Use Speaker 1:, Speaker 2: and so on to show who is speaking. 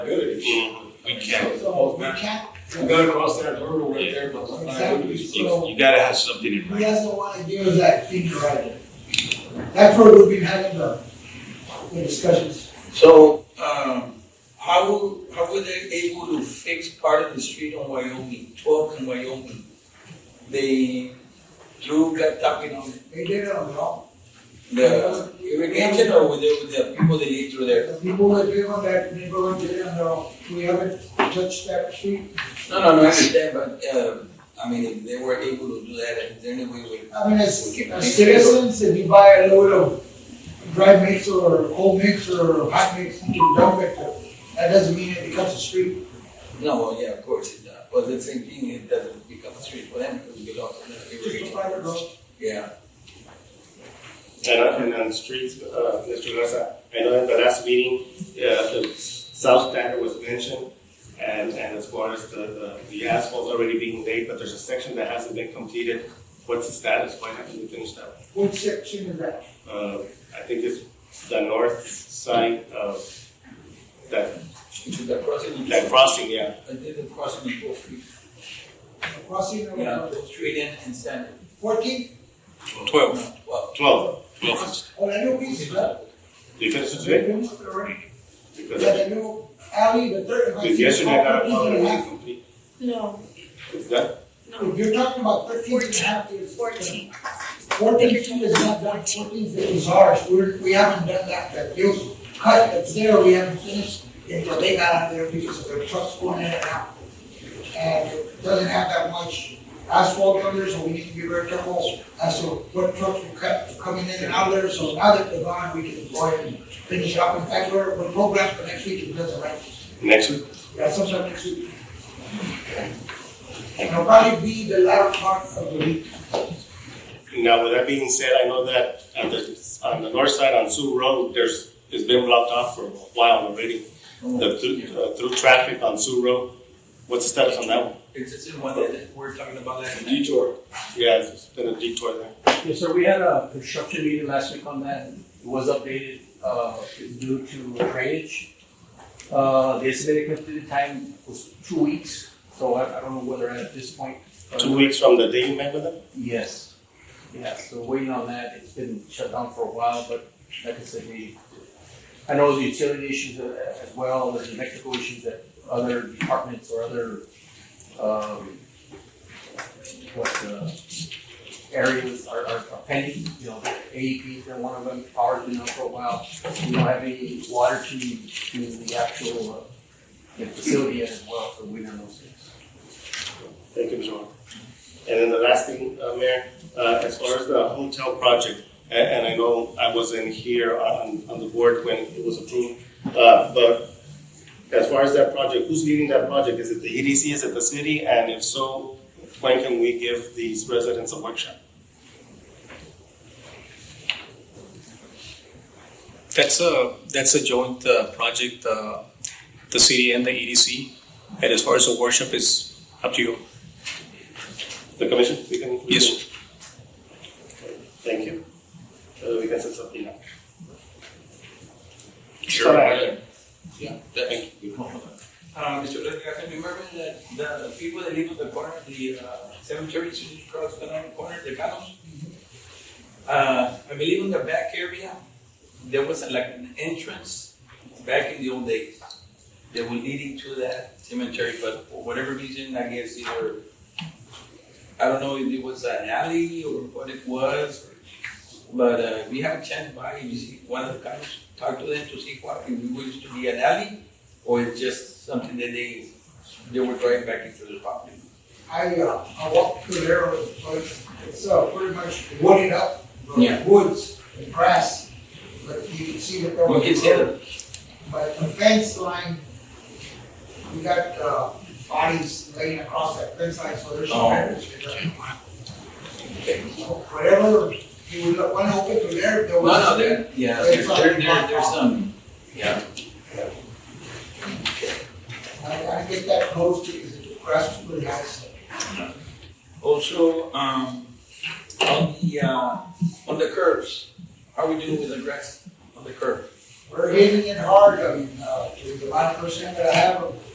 Speaker 1: Good.
Speaker 2: We can't,
Speaker 1: So we can't,
Speaker 3: We gotta cross that hurdle right there, but I'm not-
Speaker 2: you, you gotta have something in
Speaker 1: he
Speaker 2: mind.
Speaker 1: doesn't wanna give us that finger right there. That's where we've been having the, the discussions.
Speaker 4: So, um, how, how were they able to fix part of the street on Wyoming, twelve and Wyoming? They drew, got talking on
Speaker 1: They did it on their own.
Speaker 4: the irrigation or were they with the people that lived through there?
Speaker 1: The people that live on that neighborhood did it on their own. We haven't touched that street.
Speaker 4: No, no, no, I understand, but, uh, I mean, if they were able to do that, is there any way we?
Speaker 1: I mean, as, as citizens, if you buy a load of dry mix or cold mix or hot mix, you can dump it. That doesn't mean it becomes a street.
Speaker 4: No, well, yeah, of course it does, but the same thing, it doesn't become a street for them, because it belongs to the
Speaker 1: Just a
Speaker 4: irrigation.
Speaker 1: private road.
Speaker 4: Yeah,
Speaker 5: And, uh, and on the streets, uh, Mr. Mesa, I know at the last meeting, uh, the south standard was mentioned. And, and as far as the, the, the asphalt's already being laid, but there's a section that hasn't been completed. What's the status? Why haven't we finished that?
Speaker 1: What section is that?
Speaker 5: Uh, I think it's the north side of that,
Speaker 4: into the crossing.
Speaker 5: that crossing, yeah.
Speaker 4: I did the crossing in Wolf Creek,
Speaker 1: Crossing
Speaker 4: yeah,
Speaker 1: over
Speaker 4: Wolf Street and, and Standard.
Speaker 1: fourteen?
Speaker 2: Twelve.
Speaker 4: Well,
Speaker 5: Twelve.
Speaker 2: Twelve.
Speaker 1: Oh, that new piece is up.
Speaker 5: Did you finish it
Speaker 1: They
Speaker 5: today?
Speaker 1: finished it already.
Speaker 5: Because
Speaker 1: Yeah, the new alley, the third. if I
Speaker 5: because
Speaker 1: see
Speaker 5: yesterday I got a
Speaker 1: property
Speaker 5: call that
Speaker 1: and a
Speaker 5: it
Speaker 1: half.
Speaker 5: was complete.
Speaker 6: No,
Speaker 5: Is that,
Speaker 1: If you're talking about thirteen and a half years.
Speaker 6: fourteen.
Speaker 1: Fourteen feet is not done, fourteen feet is ours, we're, we haven't done that, that you cut, it's there, we haven't finished until they got out there because of their trucks going in and out. And it doesn't have that much asphalt on there, so we need to be very careful as to what trucks will cut, coming in and out there, so now that they're gone, we can go ahead and finish up. In fact, we're, we're programmed for next week, it doesn't rain.
Speaker 5: next week?
Speaker 1: Yeah, sometime next week. And it'll probably be the latter part of the week.
Speaker 5: Now, with that being said, I know that at the, on the north side on Sioux Road, there's, it's been blocked off for a while already. The through, uh, through traffic on Sioux Road, what's the status on that one?
Speaker 4: It's just the one that- that we're talking about that.
Speaker 5: Detour. Yeah, it's been a detour there.
Speaker 7: Yes, sir, we had a construction meeting last week on that. It was updated, uh, due to drainage. Uh, the estimated completion time was two weeks, so I, I don't know whether at this point. uh,
Speaker 5: Two weeks from the day you met with them?
Speaker 7: Yes, yeah, so waiting on that, it's been shut down for a while, but like I said, we, I know the utility issues a- as well, there's electrical issues that other departments or other, um, what, uh, areas are, are are pending, you know, E AEP, they're one of them, power's been out for a while. We don't have any water to, to the actual, uh, the facility yet as well, so we don't know things.
Speaker 5: Thank you, Mr. Juan. And then the last thing, uh, Mayor, uh, as far as the hotel project, a- and I know I wasn't here on, on the board when it was approved, uh, but as far as that project, who's leading that project? Is it the EDC, is it the city? And if so, when can we give these residents a workshop?
Speaker 8: That's a, that's a joint uh, project, uh, the city and the EDC. And as far as the worship is up to you.
Speaker 5: The commission, we can? we
Speaker 8: Yes.
Speaker 5: can- Thank you. Uh, We can set something up.
Speaker 2: Sure.
Speaker 4: Yeah.
Speaker 5: Thank you.
Speaker 4: Uh, Mr. Lester, remember that the the people that live on the corner, the uh, cemetery, is just across the other corner, the cows? Uh, I believe in the back area, there was like an entrance back in the old days. They were leading to that cemetery, but for whatever reason, I guess either, I don't know if it was an alley or what it was. But uh, we have a chance by, you see, one of the cows, talk to them to see what, if it used to be an alley or it's just something that they, they were driving back into the property?
Speaker 1: I, uh, I walked through there, but it's- it's, uh, pretty much wooded up, uh,
Speaker 4: Yeah.
Speaker 1: woods and grass, but you can see that there was.
Speaker 4: We can see them.
Speaker 1: But the fence line, we got, uh, bodies laying across that fence line, so there's some
Speaker 4: Oh.
Speaker 1: damage. So Whatever, you would, look- one open through there, there
Speaker 4: No,
Speaker 1: was.
Speaker 4: no, there, yeah, there, there, there- there's some, yeah.
Speaker 1: I gotta get that closed because the grass is really high, so.
Speaker 4: Also, um, on the, uh, on the curves, how are we doing with the grass on the curb?
Speaker 1: We're hitting it hard, I mean, uh, with the amount of percent that I have of